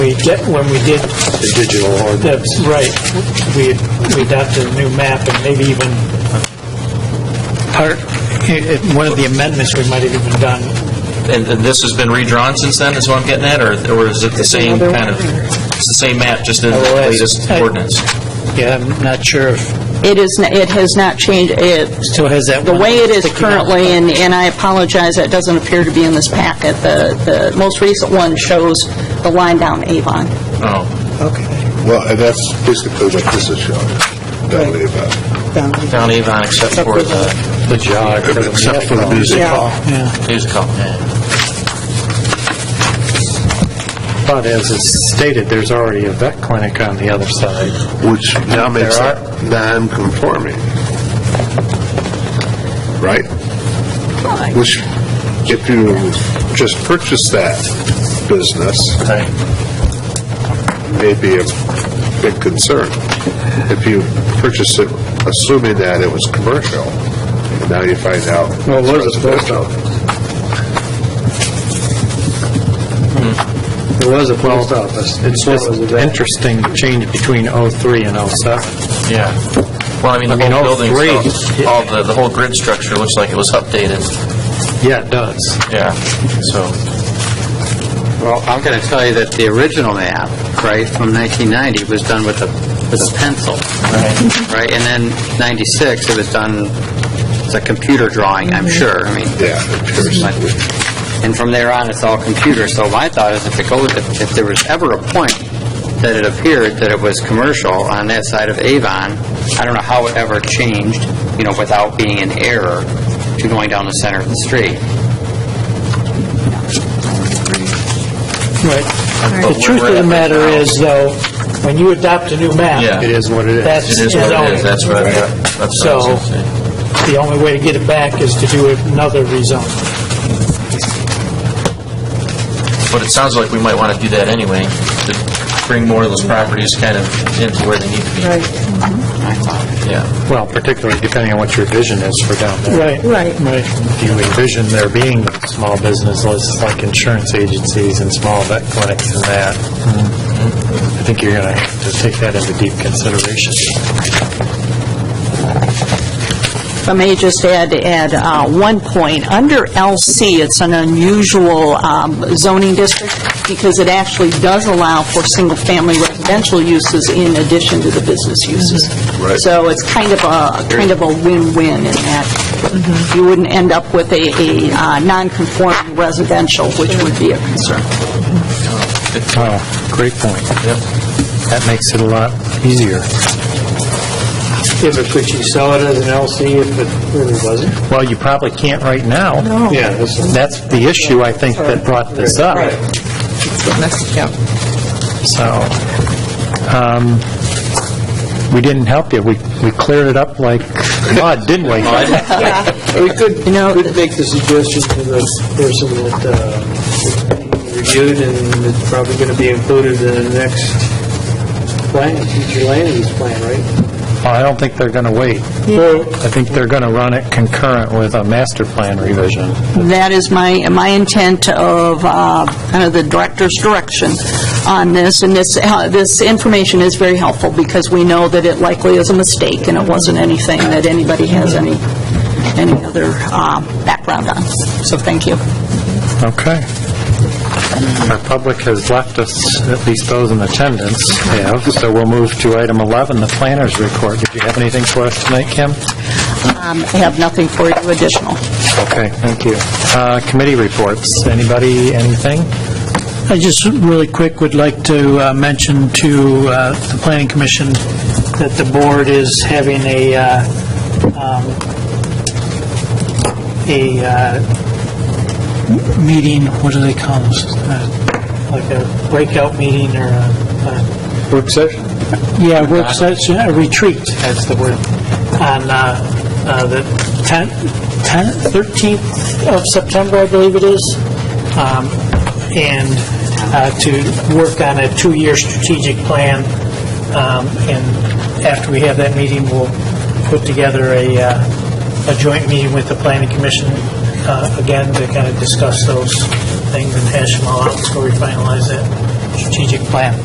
we did, when we did, the digital ordinance. that's right, we we adopted a new map and maybe even part, i- i- one of the amendments we might have even done. And and this has been redrawn since then, is what I'm getting at, or or is it the same kind of, it's the same map, just in the Otherwise, latest I- ordinance? Yeah, I'm not sure if, It is, n- it has not changed, it, still has that the one way it is sticking out. currently, and, and I apologize, that doesn't appear to be in this packet, the, the most recent one shows the line down Avon. Oh, Well, and that's basically what this is showing, down the event. down Avon except for the The jog. Except for the music hall. news call. But as it's stated, there's already a vet clinic on the other side. Which now makes There are- it non-conforming. Right? Which, if you just purchased that business, may be a big concern. If you purchase it assuming that it was commercial, and now you find out Well, it was it's residential. It was a post office. It's just interesting change between '03 and '07. Yeah. Well, I mean, the I mean, whole all building, three. all the, the whole grid structure looks like it was updated. Yeah, it does. Yeah, so. Well, I'm going to tell you that the original map, right, from 1990 was done with a, with a pencil, right? And then 96, it was done, it's a computer drawing, I'm sure, I mean. Yeah, computer. but- And from there on, it's all computer, so my thought is if it goes, if if there was ever a point that it appeared that it was commercial on that side of Avon, I don't know how it ever changed, you know, without being an error to going down the center of the street. Right. But The truth where of the we're at matter right now- is, though, when you adopt a new map... Yeah. It is what it is. That's It is what it zoning. is, that's what, I- that's what I was So- gonna say. The only way to get it back is to do another rezone. But it sounds like we might want to do that anyway, to bring more of those properties kind of into where they need to be. Right. Yeah, Well, particularly depending on what your vision is for down there. Right. Right. Right. Do you envision there being small business lists like insurance agencies and small vet clinics and that? Mm-hmm. I think you're going to have to take that into deep consideration. If I may just add, add uh, one point, under LC, it's an unusual um, zoning district because it actually does allow for single-family residential uses in addition to the business uses. Right. So it's kind of a, kind of a win-win in that you wouldn't end up with a, a uh, non-conforming residential, which would be a concern. Oh, great point. Yep. That makes it a lot easier. Yeah, but could you sell it as an LC if it really wasn't? Well, you probably can't right now. No. Yeah, that's- That's the issue, I think, that brought this up. So, um, we didn't help you. We we cleared it up like mud, didn't we? We could, could make the suggestion to the person that uh, reviewed, and it's probably going to be included in the next plan, future land use plan, right? Well, I don't think they're going to wait. I think they're going to run it concurrent with a master plan revision. That is my, my intent of, uh, kind of the director's direction on this, and this, uh, this information is very helpful, because we know that it likely is a mistake, and it wasn't anything that anybody has any, any other uh, background on. So thank you. Okay. Our public has left us, at least those in attendance have, so we'll move to item 11, the planner's report. Did you have anything for us tonight, Kim? Um, I have nothing for you additional. Okay, thank you. Uh, Committee reports, anybody, anything? I just really quick would like to uh, mention to uh, the Planning Commission that the board is having a, uh, um, a uh, meeting, what do they call this? Uh, Like a breakout meeting or a... Work session? Yeah, work session, a retreat, that's the word, on uh, uh, the 10th, 10th, 13th of September, I believe it is. Um, and uh, to work on a two-year strategic plan. Um, And after we have that meeting, we'll put together a, uh, a joint meeting with the Planning Commission, uh, again, to kind of discuss those things and hash them all out before we finalize that. strategic plan.